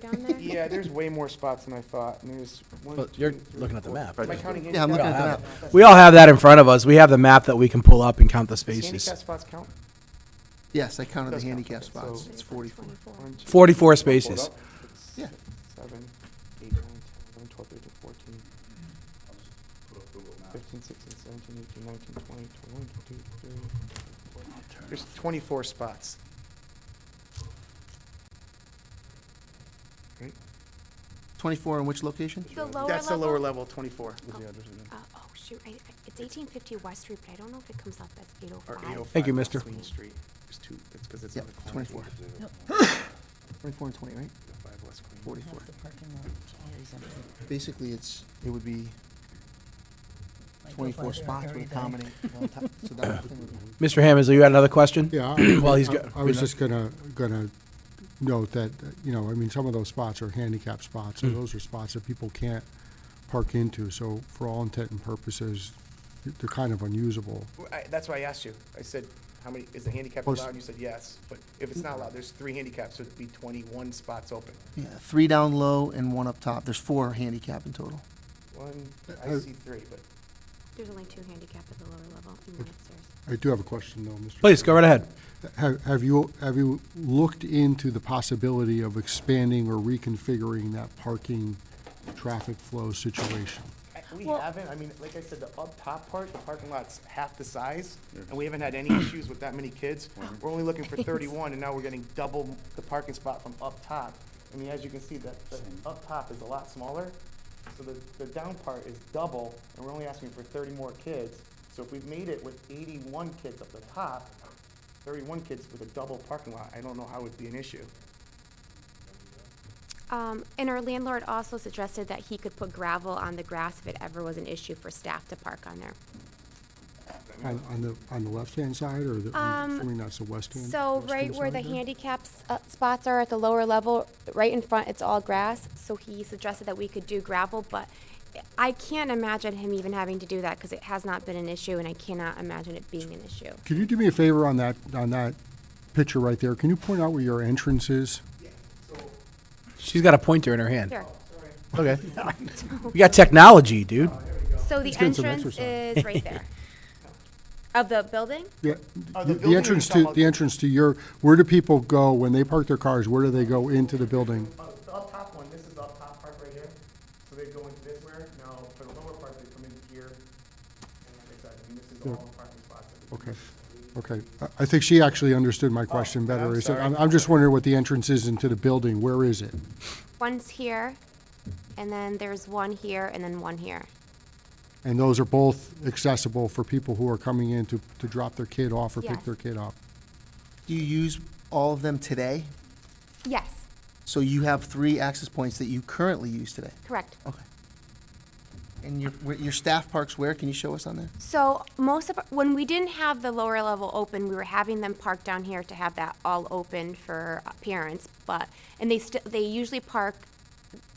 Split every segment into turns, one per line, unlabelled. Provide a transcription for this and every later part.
down there?
Yeah, there's way more spots than I thought, and there's one,
Well, you're
two, three,
looking at the
four-
map.
Am I counting handicap?
Yeah, I'm looking at the
Yeah.
map.
We all have that in front of us. We have the map that we can pull up and count the
Does
spaces.
handicap spocs count?
Yes, I counted the
Does count,
handicap
okay, so-
spots. It's 44.
One, two,
44
three, four,
spaces.
hold up. Six,
Yeah.
Seven, eight, nine, 10, 11, 12, 13, 14, 15, 16, 17, 18, 19, 20, 21, 22, 23. There's 24 spots. Right?
24 in which location?
The lower level?
That's the lower level, 24.
Oh. Uh, oh, shoot, I, I- it's eighteen fifty West Street, but I don't know if it comes up as eight oh
Or
five.
805
Thank you,
West
mister.
Wayne Street. There's two, that's 'cause it's
Yep,
on the corner.
24. 24 and 20, right?
805 West Queen.
44.
The parking lot always empty.
Basically, it's, it would be
I go
24
by there
spots
every
would
day.
accommodate. one ti- So that would be-
Mr. Hammond, you had another question?
Yeah.
While
I-
he's
I-
go-
I was just gonna, gonna note that, uh, you know, I mean, some of those spots are handicap spots,
Hmm.
so those are spots that people can't park into, so for all intent and purposes, they're kind of unusable.
Well, I- That's why I asked you. I said, how many, is the handicap
Plus-
allowed? And you said yes, but if it's not allowed, there's three handicaps, so it'd be twenty-one spots open.
Yeah, three down low and one up top. There's four handicap in total.
One, I
Uh,
see three, but
There's only two handicap at the lower level and
Hmm.
one upstairs.
I do have a question though, Mr.
Please, go right ahead.
Have, have you, have you looked into the possibility of expanding or reconfiguring that parking traffic flow situation?
I- we haven't, I mean, like I said, the up top part, the parking lot's half the size, and we haven't had any issues with that many kids. We're only looking for thirty-one, and now we're getting double the parking spot from up top. I mean, as you can see, that, the up top is a lot smaller, so the, the down part is double, and we're only asking for thirty more kids. So if we've made it with eighty-one kids up the top, thirty-one kids with a double parking lot, I don't know how it would be an issue.
Um, and our landlord also suggested that he could put gravel on the grass if it ever was an issue for staff to park on there.
On, on the, on the left-hand side, or the, I'm
Um,
assuming that's the west hand?
So
western
right where the
side there?
handicap s- uh, spots are at the lower level, right in front, it's all grass. So he suggested that we could do gravel, but I can't imagine him even having to do that because it has not been an issue and I cannot imagine it being an issue.
Could you do me a favor on that, on that picture right there? Can you point out where your entrance is?
She's got a pointer in her hand.
Sure.
Okay. We got technology, dude.
So the
get some
entrance
exercise.
is right there. Of the building?
Yeah,
Oh, the
The
building
the
you're
entrance
talking
to,
about-
the entrance to your, where do people go when they park their cars? Where do they go into the building?
Uh, the up top one, this is the up top part right here, so they go into this where, now for the lower part, they come in here. And like I said, I mean, this is all the parking spots. that we-
Okay, okay. I- I think she actually understood my question better.
Oh, I'm
Is it-
sorry.
I'm, I'm just wondering what the entrance is into the building. Where is it?
One's here, and then there's one here, and then one here.
And those are both accessible for people who are coming in to, to drop their kid off or pick
Yes.
their kid up.
Do you use all of them today?
Yes,
So you have three access points that you currently use today?
correct.
Okay. And your, where- your staff parks where? Can you show us on that?
So most of, when we didn't have the lower level open, we were having them park down here to have that all open for uh, parents, but, and they still, they usually park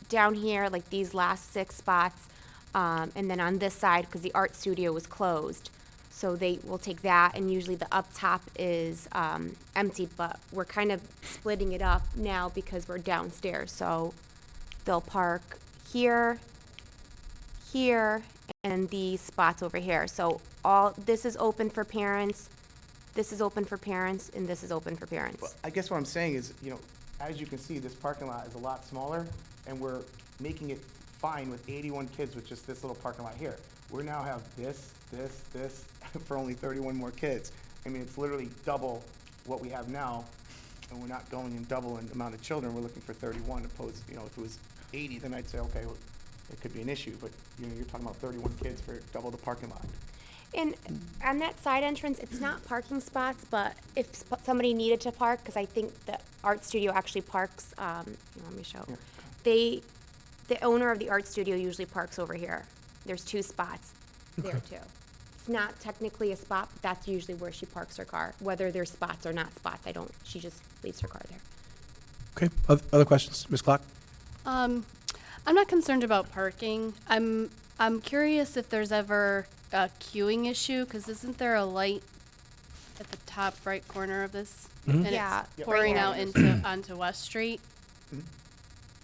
down here, like these last six spots, um, and then on this side, because the art studio was closed. So they will take that, and usually the up top is, um, empty, but we're kind of splitting it up now because we're downstairs, so they'll park here, here and these spots over here. So all, this is open for parents, this is open for parents, and this is open for
But
parents.
I guess what I'm saying is, you know, as you can see, this parking lot is a lot smaller, and we're making it fine with eighty-one kids with just this little parking lot here. We now have this, this, this, for only thirty-one more kids. I mean, it's literally double what we have now, and we're not going in double in amount of children, we're looking for thirty-one opposed, you know, if it was eighty, then I'd say, okay, well, it could be an issue, but, you know, you're talking about thirty-one kids for double the parking lot.
And on that side entrance, it's not parking spots, but if sp- somebody needed to park, because I think the art studio actually parks, um, here, let me show.
Yeah.
They, the owner of the art studio usually parks over here. There's two spots there too. It's not technically a spot, but that's usually where she parks her car, whether there's spots or not spots, I don't, she just leaves her car there.
Okay, oth- other questions? Ms. Clock?
Um, I'm not concerned about parking. I'm, I'm curious if there's ever a queuing issue, because isn't there a light at the top right corner of this? And
Yeah,
it's
Yep.
pouring
right
out
here.
into, onto West Street?